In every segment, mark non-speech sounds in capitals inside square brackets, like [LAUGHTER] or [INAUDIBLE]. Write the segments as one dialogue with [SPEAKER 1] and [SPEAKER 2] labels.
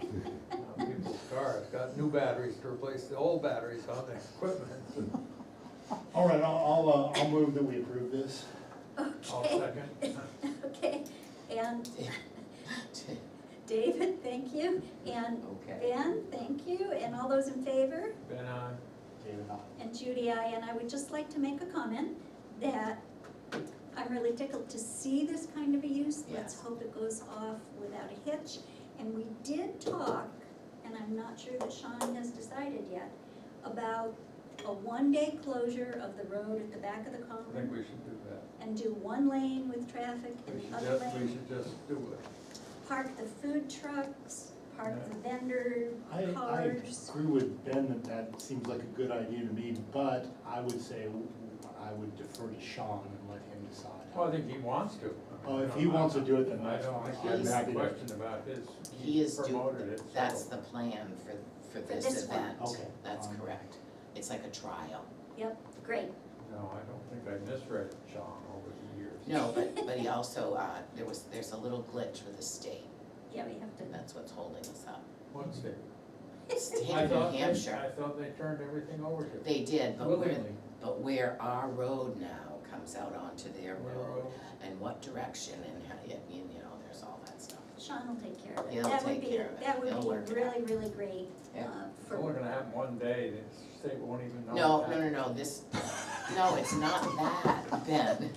[SPEAKER 1] [LAUGHS] Uh, got new batteries to replace the old batteries on the
[SPEAKER 2] [LAUGHS]
[SPEAKER 1] equipment.
[SPEAKER 3] All right, I'll, I'll, uh, I'll move that we approve this.
[SPEAKER 1] I'll
[SPEAKER 4] Okay,
[SPEAKER 1] second.
[SPEAKER 4] okay, and David, thank you, and
[SPEAKER 2] [LAUGHS] Okay.
[SPEAKER 4] Ben, thank you, and all those in favor?
[SPEAKER 1] Ben, I,
[SPEAKER 3] David, aye.
[SPEAKER 4] And Judy, I, and I would just like to make a comment that I'm really tickled to see this kind of a use. Let's
[SPEAKER 2] Yes.
[SPEAKER 4] hope it goes off without a hitch. And we did talk, and I'm not sure that Sean has decided yet, about a one-day closure of the road at the back of the
[SPEAKER 1] I think
[SPEAKER 4] common
[SPEAKER 1] we should do that.
[SPEAKER 4] and do one lane with traffic
[SPEAKER 1] We
[SPEAKER 4] and the
[SPEAKER 1] should
[SPEAKER 4] other
[SPEAKER 1] just, we
[SPEAKER 4] lane.
[SPEAKER 1] should just do it.
[SPEAKER 4] Park the food trucks, park the vendor
[SPEAKER 3] I, I
[SPEAKER 4] cars.
[SPEAKER 3] agree with Ben that that seems like a good idea to me, but I would say w- I would defer to Sean and let him decide.
[SPEAKER 1] Well, I think he wants to.
[SPEAKER 3] Oh, if he wants to do it, then
[SPEAKER 1] I
[SPEAKER 3] that's
[SPEAKER 1] don't
[SPEAKER 3] fine.
[SPEAKER 1] think there's
[SPEAKER 2] He's-
[SPEAKER 1] any question about his.
[SPEAKER 2] He is
[SPEAKER 1] promoted
[SPEAKER 2] doing,
[SPEAKER 1] it, so-
[SPEAKER 2] that's the plan for, for this
[SPEAKER 4] this one.
[SPEAKER 2] event.
[SPEAKER 3] Okay,
[SPEAKER 2] That's
[SPEAKER 1] Um,
[SPEAKER 3] fine.
[SPEAKER 2] correct. It's like a trial.
[SPEAKER 4] Yep, great.
[SPEAKER 1] No, I don't think I misread John over the years.
[SPEAKER 2] No, but, but he also, uh, there was, there's a little glitch with the state,
[SPEAKER 4] Yeah, we have to.
[SPEAKER 2] and that's what's holding us up.
[SPEAKER 1] What's it?
[SPEAKER 2] State
[SPEAKER 1] I
[SPEAKER 2] of
[SPEAKER 1] thought
[SPEAKER 2] New
[SPEAKER 1] they-
[SPEAKER 2] Hampshire,
[SPEAKER 1] I thought they turned everything over to him.
[SPEAKER 2] they did, but where,
[SPEAKER 1] Willingly.
[SPEAKER 2] but where our road now comes out onto their road,
[SPEAKER 1] Railroad.
[SPEAKER 2] and what direction, and how, you you know, there's all that stuff.
[SPEAKER 4] [LAUGHS] Sean will take care of it.
[SPEAKER 2] He'll
[SPEAKER 4] That would
[SPEAKER 2] take
[SPEAKER 4] be,
[SPEAKER 2] care of it.
[SPEAKER 4] that
[SPEAKER 2] He'll
[SPEAKER 4] would
[SPEAKER 2] work
[SPEAKER 4] be
[SPEAKER 2] it out.
[SPEAKER 4] really, really great, uh,
[SPEAKER 2] Yeah.
[SPEAKER 1] It's only
[SPEAKER 4] for, [LAUGHS]
[SPEAKER 2] [LAUGHS]
[SPEAKER 1] gonna happen one day, the state won't even know.
[SPEAKER 2] No,
[SPEAKER 1] it
[SPEAKER 2] no, no,
[SPEAKER 1] happened.
[SPEAKER 2] no, this, no, it's not that, [LAUGHS] Ben.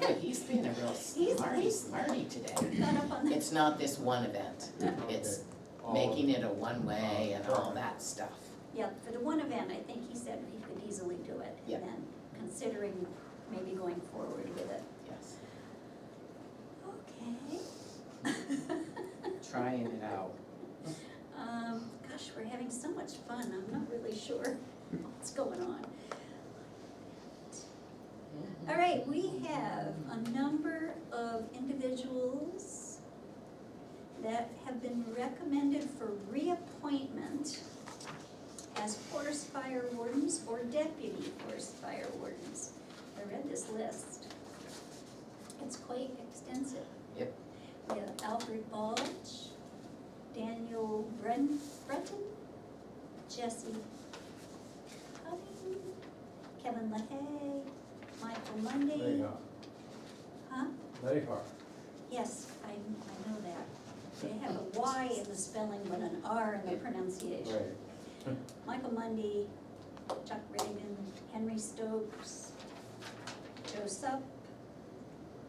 [SPEAKER 2] Boy, he's being a real smarty, smarty today.
[SPEAKER 4] got up on the,
[SPEAKER 2] It's not this one event, it's
[SPEAKER 1] All
[SPEAKER 2] making it a one-way and all that stuff.
[SPEAKER 4] yeah, for the one event, I think he said he could easily do it.
[SPEAKER 2] Yeah.
[SPEAKER 4] And then considering maybe going forward with it.
[SPEAKER 2] Yes,
[SPEAKER 4] Okay. [LAUGHS]
[SPEAKER 2] trying it out.
[SPEAKER 4] Um, gosh, we're having so much fun, I'm not really sure [LAUGHS] what's going on. All right, we have a number of individuals that have been recommended for reappointment as forest fire wardens or deputy forest fire wardens. I read this list. It's quite extensive.
[SPEAKER 2] Yep.
[SPEAKER 4] We have Alfred Balch, Daniel Bren, Breton, Jesse Cuddy, Kevin LaHaye, Michael
[SPEAKER 1] They
[SPEAKER 4] Monday.
[SPEAKER 1] are,
[SPEAKER 4] Huh?
[SPEAKER 1] they are.
[SPEAKER 4] Yes, I, I know that. They have a Y in the spelling, but an R in the pronunciation.
[SPEAKER 1] Right.
[SPEAKER 4] Michael Mundy, Chuck Reagan, Henry Stokes, Joe Sup,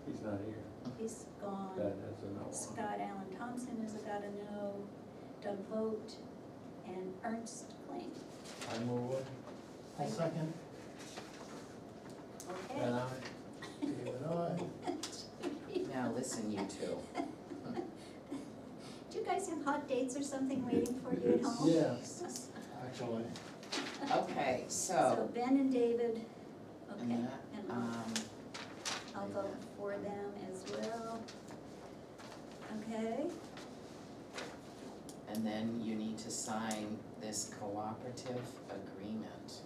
[SPEAKER 1] He's not here.
[SPEAKER 4] he's
[SPEAKER 1] That
[SPEAKER 4] gone.
[SPEAKER 1] is a no one.
[SPEAKER 4] Scott Allen Thompson is a gotta know, Doug Vogt, and Ernst Kling.
[SPEAKER 1] I move it.
[SPEAKER 3] I'll second.
[SPEAKER 1] And
[SPEAKER 4] Okay.
[SPEAKER 1] I,
[SPEAKER 3] David, aye.
[SPEAKER 2] Mm-hmm. Now, listen, you two,
[SPEAKER 4] Do you guys have hot dates or something waiting for you at home?
[SPEAKER 3] Yes. Actually,
[SPEAKER 2] okay,
[SPEAKER 4] So
[SPEAKER 2] so,
[SPEAKER 4] Ben and David,
[SPEAKER 2] Oh. and
[SPEAKER 4] okay,
[SPEAKER 2] that,
[SPEAKER 4] and I'll
[SPEAKER 2] um,
[SPEAKER 4] I'll vote for them as well. Okay,
[SPEAKER 2] and then you need to sign this cooperative agreement.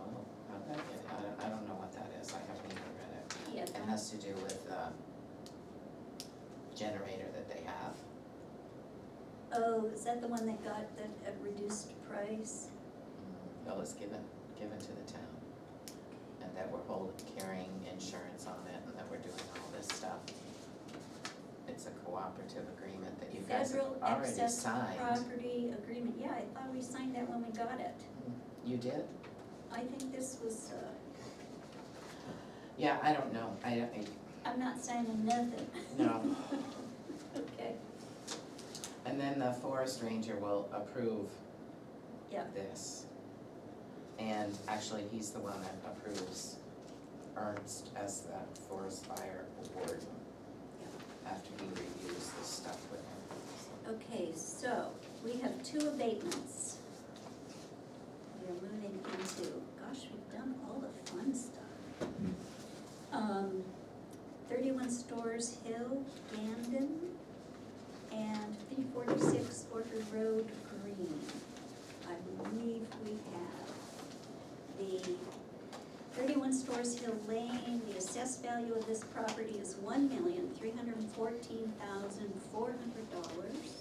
[SPEAKER 2] Oh, how'd that get, I don't, I don't know what that is, I haven't even read it.
[SPEAKER 4] yeah,
[SPEAKER 2] It has to do with, um, generator that they have.
[SPEAKER 4] oh, is that the one that got the at reduced price?
[SPEAKER 2] That was given, given to the town. And that we're holding, carrying insurance on it and that we're doing all this stuff. It's a cooperative agreement that you guys have
[SPEAKER 4] Federal
[SPEAKER 2] already
[SPEAKER 4] excess
[SPEAKER 2] signed.
[SPEAKER 4] property agreement, yeah, I thought we signed that when we got it.
[SPEAKER 2] You did?
[SPEAKER 4] I think this was, uh,
[SPEAKER 2] Yeah, I don't know, I, don't- I,
[SPEAKER 4] I'm not signing nothing.
[SPEAKER 2] no.
[SPEAKER 4] [LAUGHS] Okay,
[SPEAKER 2] And then the forest ranger will approve
[SPEAKER 4] yeah,
[SPEAKER 2] this. And actually, he's the one that approves Ernst as the forest fire warden. After he reviews this stuff with him.
[SPEAKER 4] okay, so we have two abatements. We are moving into, gosh, we've done all the fun stuff. Um, thirty-one Stores Hill, Gandon, and three forty-six Orchard Road, Green. I believe we have the thirty-one Stores Hill Lane, the assessed value of this property is one million, three hundred and fourteen thousand, four hundred dollars.